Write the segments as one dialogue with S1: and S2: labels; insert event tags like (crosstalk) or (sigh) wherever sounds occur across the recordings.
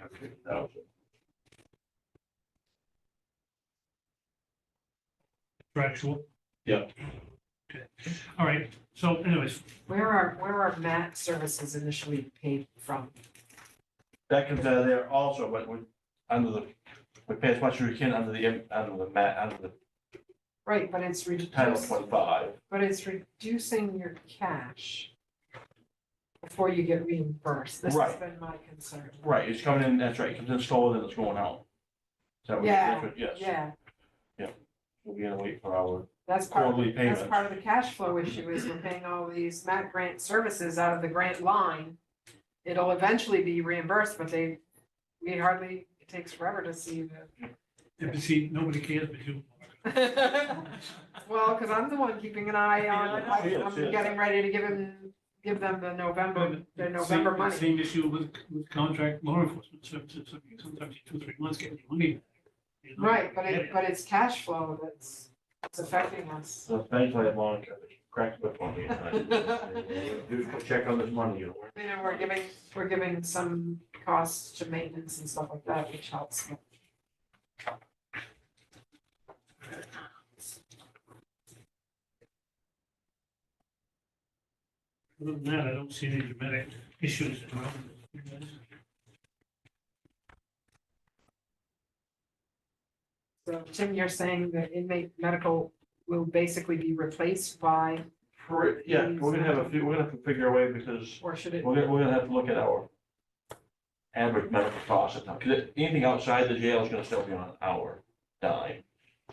S1: hundred thousand.
S2: Contractual?
S1: Yeah.
S2: Okay, all right, so anyways,
S3: Where are, where are mat services initially paid from?
S1: That comes out of there also, but we, under the, we pay as much as we can under the, under the mat, under
S3: Right, but it's
S1: the title
S3: reducing,
S1: twenty-five.
S3: but it's reducing your cash before you get reimbursed. This has
S1: Right.
S3: been my concern.
S1: Right, it's coming in, that's right, it comes in slower than it's going out. Is that what- that's what- Yes,
S3: Yeah,
S1: we're gonna wait for our
S3: that's part, of-
S1: quarterly
S3: that's
S1: payments.
S3: part of the cash flow issue is we're paying all these mat grant services out of the grant line. It'll eventually be reimbursed, but they, we hardly, it takes forever to see the
S2: if you see, nobody cares but you.
S3: (laughs) Well, because I'm the one keeping an eye on,
S1: Yeah, yeah,
S3: I'm
S1: yeah.
S3: getting ready to give him, give them the November, the
S2: Same-
S3: November money.
S2: Same issue with, with contract law enforcement services, I mean, sometimes you two, three months getting your money. back, you know?
S3: Right, but it,
S2: Yeah.
S3: but it's cash flow that's, that's affecting us.
S1: So thankfully, Monica, cracked whip on me.
S3: (laughs)
S1: Do a check on this money, you know.
S3: You know, we're giving, we're giving some costs to maintenance and stuff like that, which helps.
S2: Other than that, I don't see any dramatic issues. around it.
S3: So Tim, you're saying that inmate medical will basically be replaced by,
S1: For- Yeah, we're gonna have a few, we're gonna have to figure a way because
S3: or should it?
S1: we're gonna, we're gonna have to look at our average medical costs now, because anything outside the jail is gonna still be on our dime.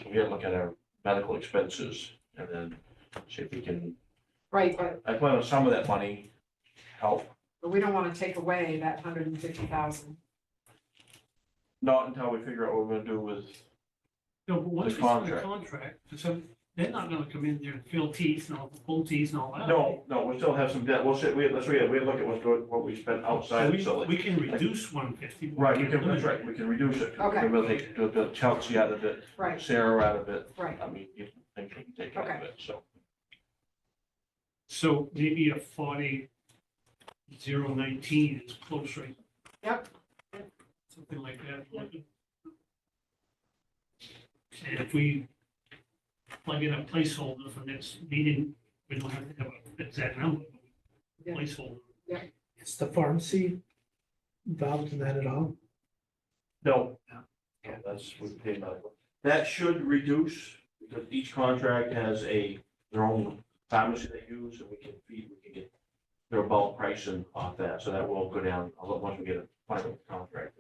S1: So we gotta look at our medical expenses and then see if we can,
S3: Right, but
S1: I plan on some of that money help,
S3: but we don't want to take away that hundred and fifty thousand.
S1: not until we figure out what we're gonna do with,
S2: No, but once
S1: The
S2: you sign the
S1: contract.
S2: contract, so they're not gonna come in there and fill teeth and all, pull teeth and all that.
S1: no, no, we still have some debt, we'll sit, we, let's, we, we look at what's going, what we spent
S2: So
S1: outside the
S2: we,
S1: facility.
S2: we can reduce one fifty.
S1: Right, we can, that's right, we can reduce it.
S3: Okay.
S1: We will take, do the Chelsea out of it,
S3: Right,
S1: Sarah out of it,
S3: right.
S1: I mean, you think we can take out of it, so.
S2: So maybe a forty zero nineteen is close, right?
S3: Yep.
S2: Something like that. And if we plug in a placeholder for next meeting, we don't have to have an exact number, but
S3: Yeah.
S2: placeholder.
S4: Is the pharmacy involved in that at all?
S1: No.
S2: No.
S1: No, That's, we pay medical. That should reduce, because each contract has a, their own pharmacy they use, and we can feed, we can get their bulk pricing off that, so that will go down, a lot once we get a final contract.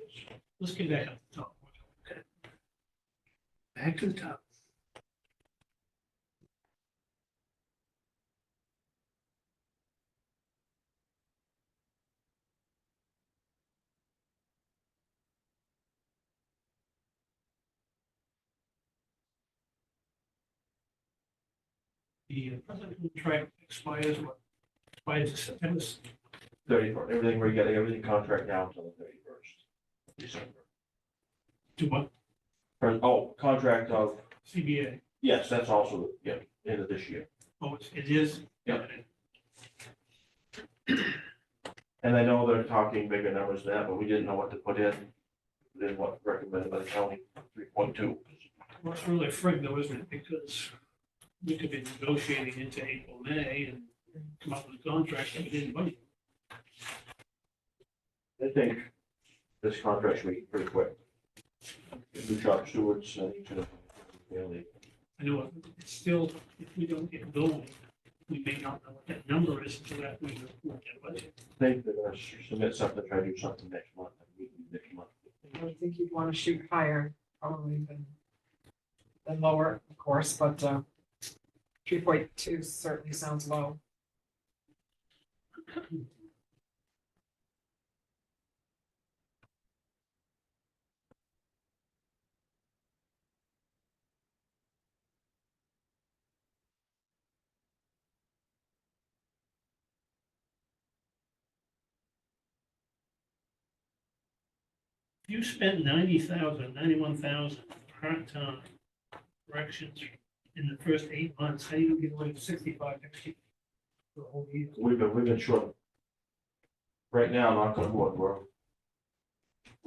S2: Let's get that up top.
S4: Back to the top.
S2: The present contract expires, what, by September
S1: Thirty-first, everything, we're getting everything contract now until the thirty-first. December.
S2: to what,
S1: Or- Oh, contract of,
S2: CBA,
S1: yes, that's also, yeah, end of this year.
S2: oh, it's- it is.
S1: Yeah. And I know they're talking bigger numbers than that, but we didn't know what to put in, then what recommended by the county, three point two.
S2: Well, it's really frig though, isn't it? Because we could be negotiating into April, May and come up with a contract that we didn't budget.
S1: I think this contract should be pretty quick. New job stewards, uh, I think, to really,
S2: I know it's still, if we don't get going, we may not know what that number is until after we report that budget.
S1: think they're gonna submit something, try to do something next month, I mean, next month.
S3: I would think you'd want to shoot higher probably than, than lower, of course, but, uh, three point two certainly sounds low.
S2: If You spent ninety thousand, ninety-one thousand part-time corrections in the first eight months, how do you get away with sixty-five next year? For the whole year?
S1: We've been, we've been short. Right now, knock on wood, we're